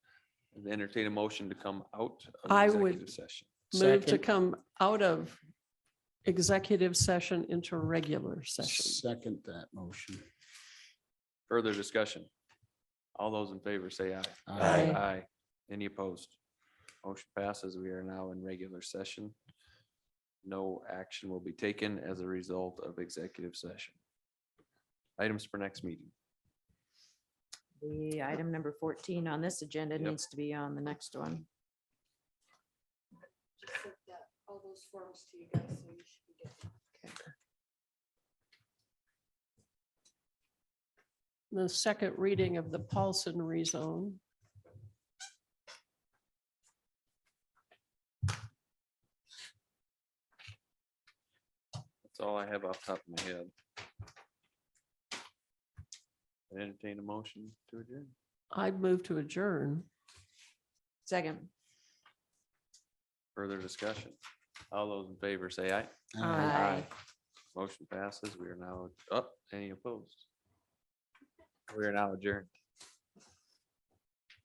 entertain a motion to come out I of executive would- session. Move to Second. come out of executive session into regular session. Second that motion. Further discussion? All those in favor say aye. Aye. Aye. Any opposed? Motion passes. We are now in regular session. No action will be taken as a result of executive session. Items for next meeting. The item number fourteen on this agenda Yep. needs to be on the next one. all those forms to you guys, so you should be good. The second reading of the Paulson rezone. That's all I have off the top of my head. I Entertain a motion to adjourn. I move to adjourn. Second. Further discussion. All those in favor say aye. Aye. Motion passes. oh, We are now up. Any opposed? We are now adjourned.